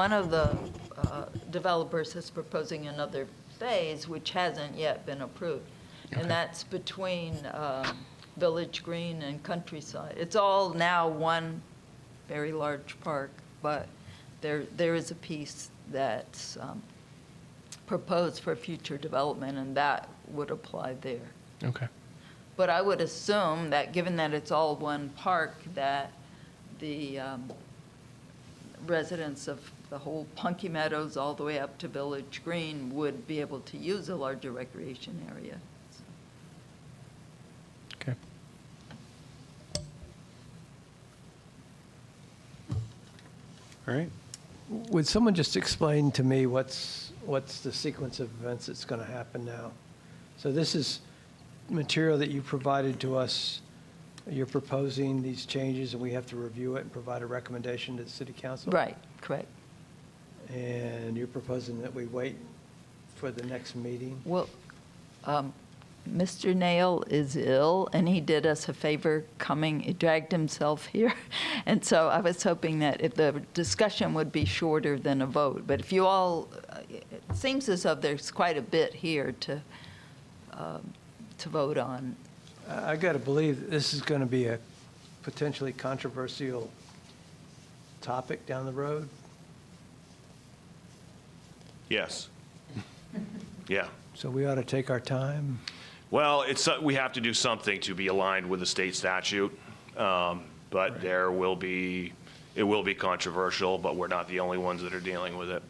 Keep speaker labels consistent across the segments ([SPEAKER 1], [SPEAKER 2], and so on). [SPEAKER 1] One of the uh, developers is proposing another phase, which hasn't yet been approved.
[SPEAKER 2] Okay.
[SPEAKER 1] And that's between um, Village Green and Countryside. It's all now one very large park, but there, there is a piece that's um, proposed for future development, and that would apply there.
[SPEAKER 2] Okay.
[SPEAKER 1] But I would assume that, given that it's all one park, that the um, residents of the whole Punky Meadows, all the way up to Village Green, would be able to use a larger recreation area.
[SPEAKER 2] Okay.
[SPEAKER 3] All right.
[SPEAKER 4] Would someone just explain to me what's, what's the sequence of events that's going to happen now? So this is material that you provided to us. You're proposing these changes, and we have to review it and provide a recommendation to the city council?
[SPEAKER 1] Right, correct.
[SPEAKER 4] And you're proposing that we wait for the next meeting?
[SPEAKER 1] Well, um, Mr. Nail is ill, and he did us a favor coming, he dragged himself here. And so I was hoping that if the discussion would be shorter than a vote. But if you all, uh, it seems as though there's quite a bit here to, um, to vote on.
[SPEAKER 4] I got to believe that this is going to be a potentially controversial topic down the road.
[SPEAKER 3] Yes. Yeah.
[SPEAKER 4] So we ought to take our time.
[SPEAKER 3] Well, it's, uh, we have to do something to be aligned with the state statute. um, But there will be, it will be controversial, but we're not the only ones that are dealing with it.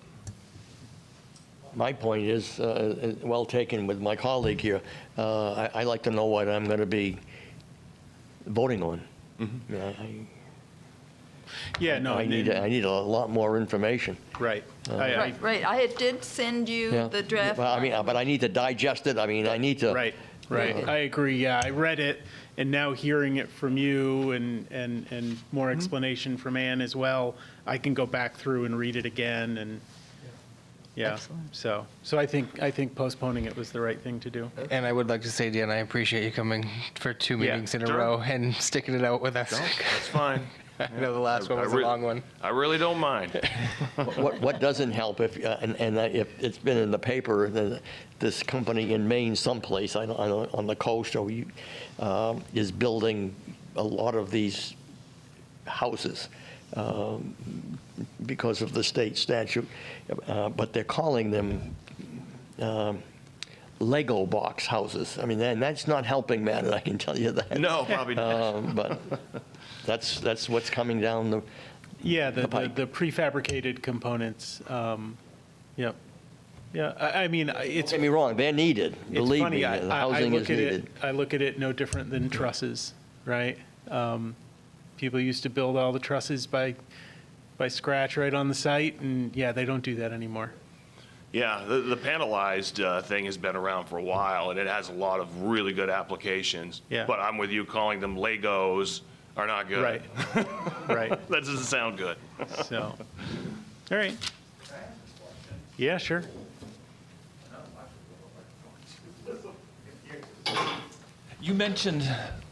[SPEAKER 5] My point is, uh, uh, well taken with my colleague here, Uh, I- I'd like to know what I'm going to be voting on. Yeah, I-
[SPEAKER 6] Mm-hmm. Yeah, no,
[SPEAKER 5] I
[SPEAKER 6] and-
[SPEAKER 5] Oh, need, I need a lot more information.
[SPEAKER 6] right. I- I-
[SPEAKER 1] Right, right, I did send you
[SPEAKER 5] Yeah.
[SPEAKER 1] the draft.
[SPEAKER 5] Well, I mean, uh, but I need to digest it, I mean, I need to.
[SPEAKER 6] Right, right. I agree, yeah. I read it, and now hearing it from you and, and, and more explanation from Ann as well, I can go back through and read it again, and, yeah.
[SPEAKER 1] Excellent.
[SPEAKER 6] So, so I think, I think postponing it was the right thing to do.
[SPEAKER 7] And I would like to say, Dan, I appreciate you coming for two
[SPEAKER 6] Yeah,
[SPEAKER 7] meetings in a
[SPEAKER 3] sure.
[SPEAKER 7] row and sticking it out with us.
[SPEAKER 3] That's fine.
[SPEAKER 7] I know the last one
[SPEAKER 3] I
[SPEAKER 7] was a
[SPEAKER 3] re-
[SPEAKER 7] long one.
[SPEAKER 3] I really don't mind.
[SPEAKER 5] What, what doesn't help if, uh, and, and I- if it's been in the paper, that this company in Maine someplace, I don't, I don't, on the coast, or you, um, is building a lot of these houses um, because of the state statute, uh, but they're calling them um, Lego box houses. I mean, and that's not helping matter, I can tell you that.
[SPEAKER 3] No, probably not.
[SPEAKER 5] Um, But that's, that's what's coming down the,
[SPEAKER 6] Yeah,
[SPEAKER 5] The
[SPEAKER 6] the, the
[SPEAKER 5] pipe.
[SPEAKER 6] the prefabricated components, um, yep. Yeah, I, I mean, I- it's.
[SPEAKER 5] Don't get me wrong, they're needed,
[SPEAKER 6] It's
[SPEAKER 5] believe
[SPEAKER 6] funny,
[SPEAKER 5] me,
[SPEAKER 6] I-
[SPEAKER 5] the
[SPEAKER 6] I- I
[SPEAKER 5] housing
[SPEAKER 6] look
[SPEAKER 5] is
[SPEAKER 6] at it-
[SPEAKER 5] needed.
[SPEAKER 6] I look at it no different than trusses, right? Um, People used to build all the trusses by, by scratch right on the site, and yeah, they don't do that anymore.
[SPEAKER 3] Yeah, the, the panelized uh, thing has been around for a while, and it has a lot of really good applications.
[SPEAKER 6] Yeah.
[SPEAKER 3] But I'm with you, calling them Legos are not good.
[SPEAKER 6] Right, right,
[SPEAKER 3] That doesn't sound good.
[SPEAKER 6] so, all right. Yeah, sure.
[SPEAKER 8] You mentioned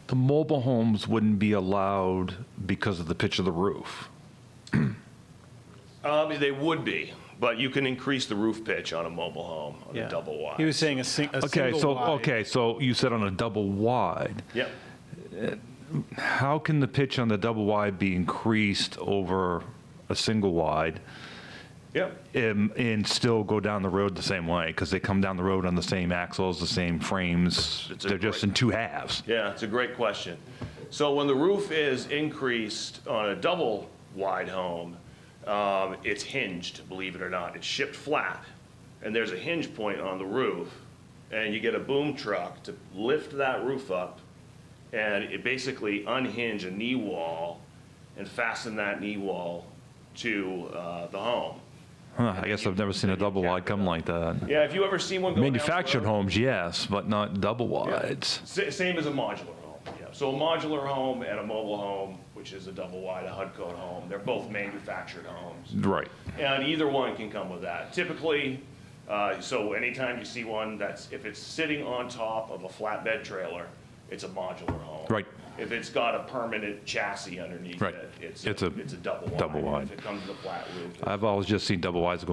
[SPEAKER 8] the mobile homes wouldn't be allowed because of the pitch of the roof.
[SPEAKER 3] Um, They would be, but you can increase the roof pitch on a mobile home, on
[SPEAKER 6] Yeah.
[SPEAKER 3] a double wide.
[SPEAKER 6] He was saying a sing, a
[SPEAKER 8] Okay,
[SPEAKER 6] single
[SPEAKER 8] so,
[SPEAKER 6] wide.
[SPEAKER 8] okay, so you said on a double wide.
[SPEAKER 3] Yep.
[SPEAKER 8] How can the pitch on the double wide be increased over a single wide
[SPEAKER 3] Yep.
[SPEAKER 8] and, and still go down the road the same way? Because they come down the road on the same axles, the same frames.
[SPEAKER 3] It's a
[SPEAKER 8] They're just
[SPEAKER 3] great-
[SPEAKER 8] in two halves.
[SPEAKER 3] Yeah, it's a great question. So when the roof is increased on a double wide home, um, it's hinged, believe it or not. It's shipped flat, and there's a hinge point on the roof, and you get a boom truck to lift that roof up, and it basically unhinge a knee wall and fasten that knee wall to uh, the home.
[SPEAKER 8] Huh, I guess I've never seen a double wide come like that.
[SPEAKER 3] Yeah, if you ever see one go down the
[SPEAKER 8] Manufactured
[SPEAKER 3] road-
[SPEAKER 8] homes, yes, but not double
[SPEAKER 3] Yeah.
[SPEAKER 8] wides.
[SPEAKER 3] Sa- Same as a modular home, yeah. So a modular home and a mobile home, which is a double wide, a HUD code home, they're both manufactured homes.
[SPEAKER 8] Right.
[SPEAKER 3] And either one can come with that. Typically, uh, so anytime you see one that's, if it's sitting on top of a flatbed trailer, it's a modular home.
[SPEAKER 8] Right.
[SPEAKER 3] If it's got a permanent chassis underneath
[SPEAKER 8] Right.
[SPEAKER 3] it, it's,
[SPEAKER 8] It's a
[SPEAKER 3] it's a double wide.
[SPEAKER 8] double wide.
[SPEAKER 3] If it comes with a flat roof. it's-
[SPEAKER 8] I've always just seen double wides go